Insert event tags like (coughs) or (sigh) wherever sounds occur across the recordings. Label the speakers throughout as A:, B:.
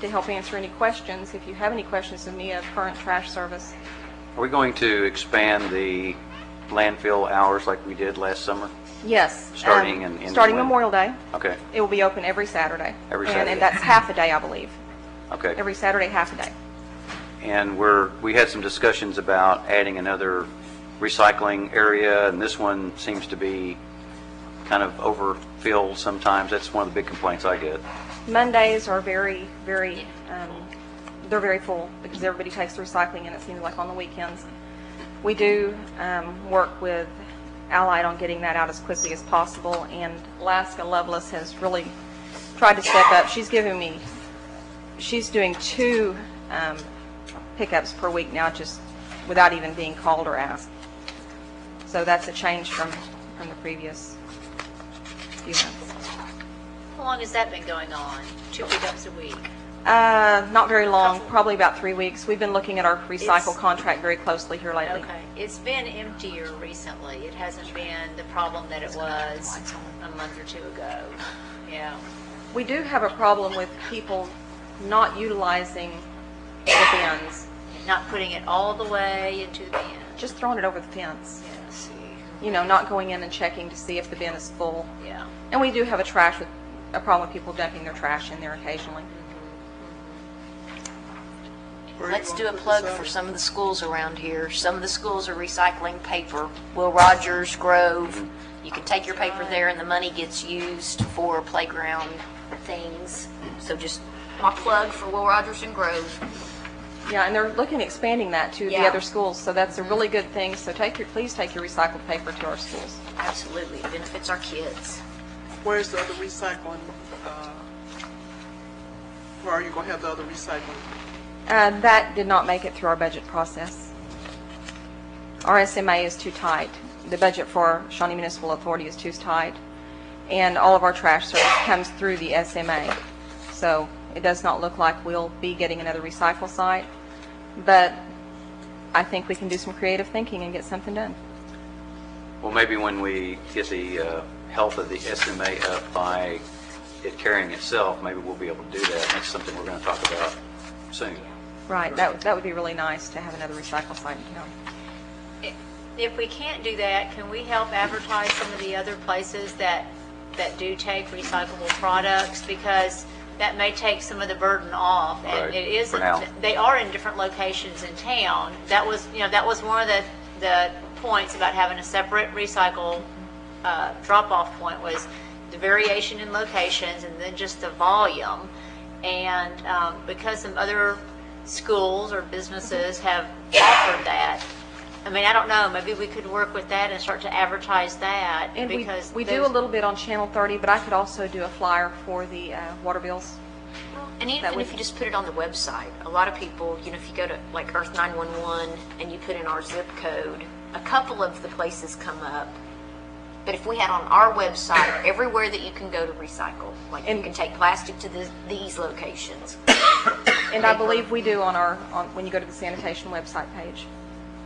A: to help answer any questions, if you have any questions of me of current trash service.
B: Are we going to expand the landfill hours like we did last summer?
A: Yes. um,
B: Starting and ending
A: Starting
B: when?
A: Memorial Day.
B: Okay,
A: It will be open every Saturday.
B: Every
A: And-
B: Saturday.
A: And that's half a day, I believe.
B: okay.
A: Every Saturday, half a day.
B: And we're, we had some discussions about adding another recycling area, and this one seems to be kind of overfilled sometimes. That's one of the big complaints I get.
A: Mondays are very, very, um, they're very full because everybody takes the recycling and it seems like on the weekends. We do um, work with Allied on getting that out as quickly as possible and Alaska Loveless has really tried to step up. She's given me, she's doing two um, pickups per week now just without even being called or asked. So that's a change from, from the previous few months.
C: How long has that been going on? Two pickups a week?
A: Uh, not very long,
C: Couple-
A: probably about three weeks. We've been looking at our recycle
C: It's-
A: contract very closely here lately.
C: Okay. It's been emptier recently. It hasn't been the problem that it was a month or two ago. Yeah.
A: We do have a problem with people not utilizing the bins,
C: Not putting it all the way into the bin.
A: just throwing it over the fence.
C: Yeah, see.
A: You know, not going in and checking to see if the bin is full.
C: Yeah.
A: And we do have a trash, with a problem with people dumping their trash in there occasionally.
D: Let's do a plug for some of the schools around here. Some of the schools are recycling paper. Will Rogers, Grove, you can take your paper there and the money gets used for playground things. So just my plug for Will Rogers and Grove.
A: Yeah, and they're looking at expanding that to the
D: Yeah.
A: other schools, so that's a really good thing. So take your, please take your recycled paper to our schools.
D: Absolutely, it benefits our kids.
E: Where's the other recycling? uh, Where are you going to have the other recycling?
A: Uh, That did not make it through our budget process. Our SMA is too tight. The budget for Shawnee Municipal Authority is too tight, and all of our trash service comes through the SMA. So it does not look like we'll be getting another recycle site, but I think we can do some creative thinking and get something done.
B: Well, maybe when we get the uh, health of the SMA up by it carrying itself, maybe we'll be able to do that. That's something we're going to talk about soon.
A: Right, that would- that would be really nice to have another recycle site in town.
C: If we can't do that, can we help advertise some of the other places that, that do take recyclable products? Because that may take some of the burden off, and
B: Right,
C: it
B: for now.
C: isn't, they are in different locations in town. That was, you know, that was one of the, the points about having a separate recycle uh, drop-off point was the variation in locations and then just the volume. And um, because some other schools or businesses have offered that, I mean, I don't know, maybe we could work with that and start to advertise that
A: And we,
C: because.
A: we do a
C: those-
A: little bit on Channel 30, but I could also do a flyer for the uh, water bills.
D: And
A: That
D: even
A: would-
D: if you just put it on the website, a lot of people, you know, if you go to like Earth 911 and you put in our zip code, a couple of the places come up. But if we had on our
A: (coughs)
D: website, everywhere that you can go to recycle, like you
A: And-
D: can take plastic to the, these locations.
A: And I believe we do on our, on, when you go to the sanitation website page.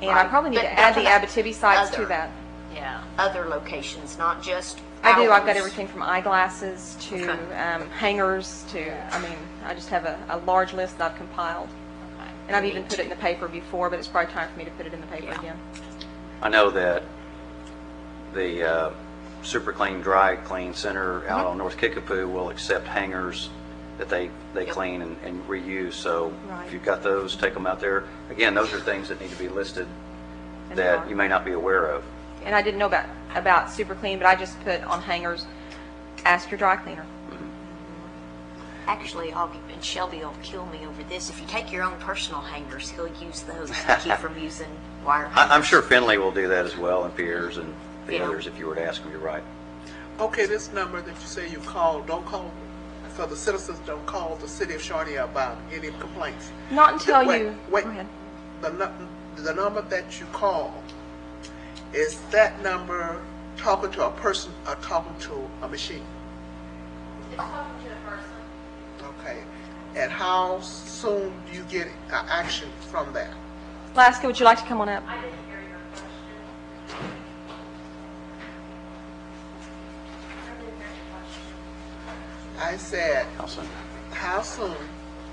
A: And I
D: Right.
A: probably need
D: But
A: to add the
D: that's
A: Abitibi sites to
D: other.
A: that.
C: Yeah.
D: Other locations, not just.
A: I do, I've got
D: ours.
A: everything from eyeglasses to
D: Okay.
A: um, hangers to, I mean, I just have a, a large list that I've compiled. And I've even put it in the paper before, but it's probably time for me to put it in the paper again.
B: I know that the uh, Super Clean Dry Clean Center out
A: Uh-huh.
B: on North Kickapoo will accept hangers that they, they clean and- and reuse, so
A: Right.
B: if you've got those, take them out there. Again, those are things that need to be listed
A: And they
B: that
A: are.
B: you may not be aware of.
A: And I didn't know about, about Super Clean, but I just put on hangers, ask your dry cleaner.
D: Actually, I'll, and Shelby will kill me over this. If you take your own personal hangers, he'll use those to
A: (laughs)
D: keep from using wire.
B: I- I'm
D: hangers.
B: sure Finley will do that as well, and Piers and the
D: Yeah.
B: others, if you were to ask them, you're right.
E: Okay, this number that you say you called, don't call, so the citizens don't call the city of Shawnee about any complaints.
A: Not until
E: Wait,
A: you, go
E: Wait,
A: ahead.
E: the, nu- the number that you call, is that number talking to a person or talking to a machine? It's talking to a person. Okay, and how soon do you get a action from that?
A: Laska, would you like to come on up?
E: I said,
B: Allison?
E: how soon